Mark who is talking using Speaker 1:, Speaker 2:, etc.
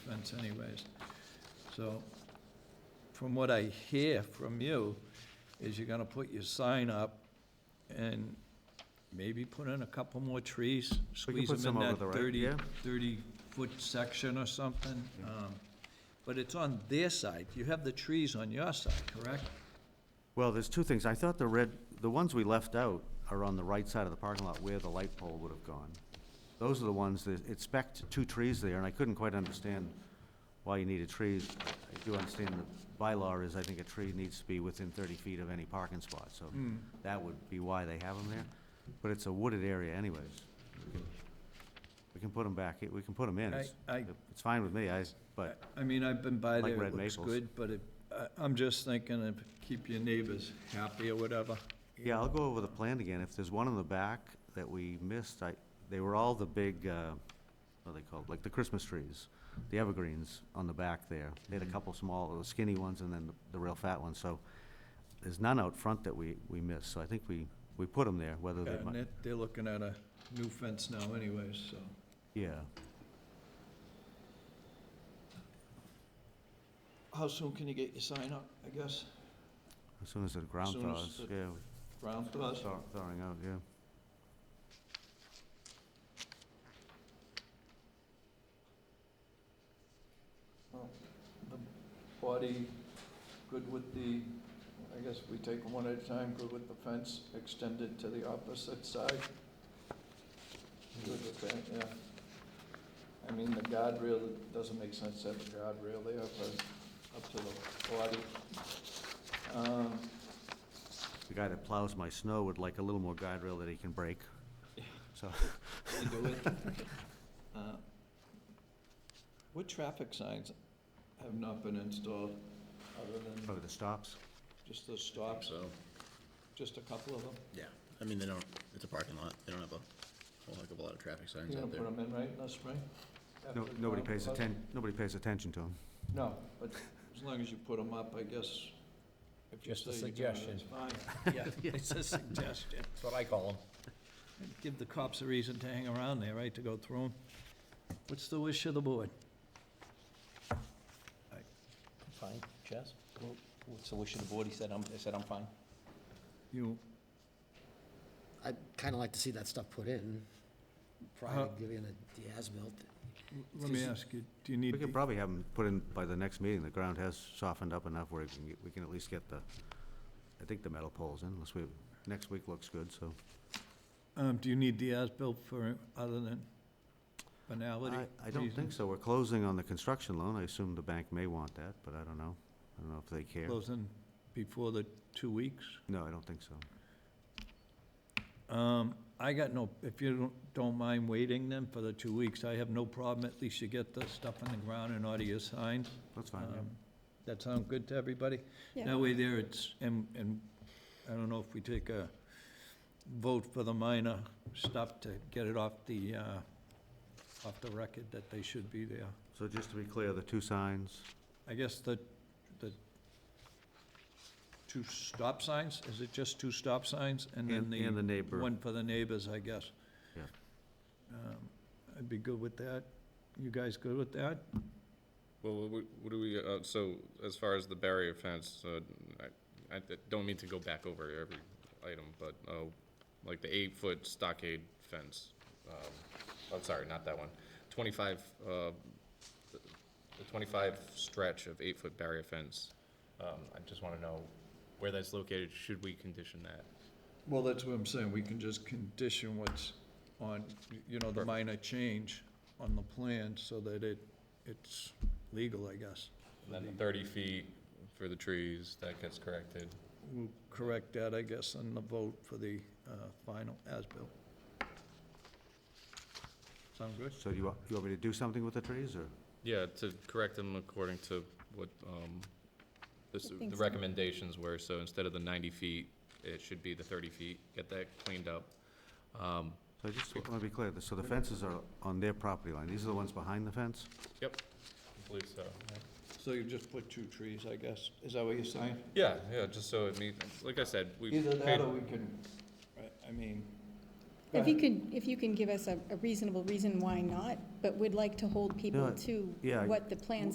Speaker 1: expense anyways. So, from what I hear from you, is you're gonna put your sign up and maybe put in a couple more trees, squeeze
Speaker 2: put
Speaker 1: them
Speaker 2: some
Speaker 1: in
Speaker 2: over
Speaker 1: that
Speaker 2: the right,
Speaker 1: thirty,
Speaker 2: yeah.
Speaker 1: thirty-foot section or something. Um, But it's on their side, you have the trees on your side, correct?
Speaker 2: Well, there's two things. I thought the red, the ones we left out are on the right side of the parking lot where the light pole would have gone. Those are the ones that, it spec'd two trees there, and I couldn't quite understand why you needed trees. I do understand the bylaw is, I think a tree needs to be within thirty feet of any parking spot, so
Speaker 1: Hmm.
Speaker 2: that would be why they have them there. But it's a wooded area anyways. We can- We can put them back, we can put them in.
Speaker 1: I-
Speaker 2: It's-
Speaker 1: I-
Speaker 2: It's fine with me, I, s- but.
Speaker 1: I mean, I've been by
Speaker 2: Like
Speaker 1: there, it
Speaker 2: red
Speaker 1: looks
Speaker 2: maples.
Speaker 1: good, but it, I, I'm just thinking of keep your neighbors happy or whatever.
Speaker 2: Yeah, I'll go over the plan again. If there's one in the back that we missed, I, they were all the big, uh, what are they called, like the Christmas trees, the evergreens on the back there. They
Speaker 1: Mm-hmm.
Speaker 2: had a couple small, little skinny ones and then the real fat ones, so there's none out front that we, we missed, so I think we, we put them there, whether they
Speaker 1: And
Speaker 2: might,
Speaker 1: they're, they're looking at a new fence now anyways, so.
Speaker 2: yeah.
Speaker 1: How soon can you get your sign up, I guess?
Speaker 2: As soon as the ground
Speaker 1: Soon as
Speaker 2: thaws,
Speaker 1: the-
Speaker 2: yeah,
Speaker 1: Ground to us?
Speaker 2: thaw- thawing out, yeah.
Speaker 1: The Body, good with the, I guess we take them one at a time, good with the fence extended to the opposite side? Good with that, yeah. I mean, the guardrail, it doesn't make sense to have a guardrail there, but up to the body. Um,
Speaker 2: The guy that plows my snow would like a little more guide rail that he can break, so.
Speaker 1: you do it. Uh, What traffic signs have not been installed, other than
Speaker 2: Probably the stops.
Speaker 1: just the stops,
Speaker 3: So,
Speaker 1: just a couple of them?
Speaker 3: yeah, I mean, they don't, it's a parking lot, they don't have a whole heck of a lot of traffic signs
Speaker 1: You're
Speaker 3: out
Speaker 1: gonna
Speaker 3: there.
Speaker 1: put them in, right, in the spring?
Speaker 2: No,
Speaker 1: After the
Speaker 2: nobody
Speaker 1: ground
Speaker 2: pays
Speaker 1: floods?
Speaker 2: atten, nobody pays attention to them.
Speaker 1: No, but as long as you put them up, I guess, if you
Speaker 4: Just a
Speaker 1: say you're doing it,
Speaker 4: suggestion.
Speaker 1: it's fine.
Speaker 4: Yeah,
Speaker 1: It's a suggestion.
Speaker 4: that's what I call them.
Speaker 1: Give the cops a reason to hang around there, right, to go through them. What's the wish of the board?
Speaker 4: Fine, Chaz? Well, What's the wish of the board? He said, I'm, I said, I'm fine.
Speaker 1: You,
Speaker 5: I'd kind of like to see that stuff put in
Speaker 1: How-
Speaker 5: prior to giving it the as-built.
Speaker 1: let me ask you, do you need?
Speaker 2: We
Speaker 1: the-
Speaker 2: can probably have them put in by the next meeting, the ground has softened up enough where we can, get- we can at least get the, I think the metal poles in, unless we, next week looks good, so.
Speaker 1: Um, do you need the as-built for, other than banality?
Speaker 2: I, I don't think so, we're closing on the construction loan, I assume the bank may want that, but I don't know, I don't know if they care.
Speaker 1: Closing before the two weeks?
Speaker 2: No, I don't think so.
Speaker 1: Um, I got no, if you don't, don't mind waiting then for the two weeks, I have no problem, at least you get the stuff on the ground and audio signs.
Speaker 2: That's fine, yeah.
Speaker 1: Um, That sound good to everybody?
Speaker 6: Yeah.
Speaker 1: That way there it's, and, and I don't know if we take a vote for the minor stuff to get it off the, uh, off the record that they should be there.
Speaker 2: So just to be clear, the two signs,
Speaker 1: I guess the, the two stop signs, is it just two stop signs? And then
Speaker 2: and, and the
Speaker 1: the
Speaker 2: neighbor,
Speaker 1: one for the neighbors, I guess.
Speaker 2: Yeah.
Speaker 1: Um, I'd be good with that. You guys good with that?
Speaker 7: Well, what we- what do we, uh, so as far as the barrier fence, uh, I, I d- don't mean to go back over every item, but, uh, like the eight-foot stockade fence, um, I'm sorry, not that one. Twenty-five, uh, the the twenty-five stretch of eight-foot barrier fence, um, I just wanna know where that's located, should we condition that?
Speaker 1: Well, that's what I'm saying. We can just condition what's on, you know, the minor change on the plan so that it, it's legal, I guess.
Speaker 7: And then the thirty feet for the trees, that gets corrected.
Speaker 1: We'll correct that, I guess, on the vote for the uh, final as-built. Sound good?
Speaker 2: so you, wa- you want me to do something with the trees, or?
Speaker 7: Yeah, to correct them according to what, um, this,
Speaker 6: I think
Speaker 7: the
Speaker 6: so.
Speaker 7: recommendations were, so instead of the ninety feet, it should be the thirty feet, get that cleaned up. Um,
Speaker 2: So I just want to be clear, so the fences are on their property line, these are the ones behind the fence?
Speaker 7: yep, I believe so.
Speaker 1: So you just put two trees, I guess. Is that what you're saying?
Speaker 7: Yeah, yeah, just so it means, like I said, we.
Speaker 1: Either
Speaker 7: paid-
Speaker 1: that or we can, I- I mean, Go
Speaker 6: If you
Speaker 1: ahead.
Speaker 6: could, if you can give us a a reasonable reason why not, but we'd like to hold people
Speaker 2: No,
Speaker 6: to
Speaker 2: yeah, I-
Speaker 6: what the plans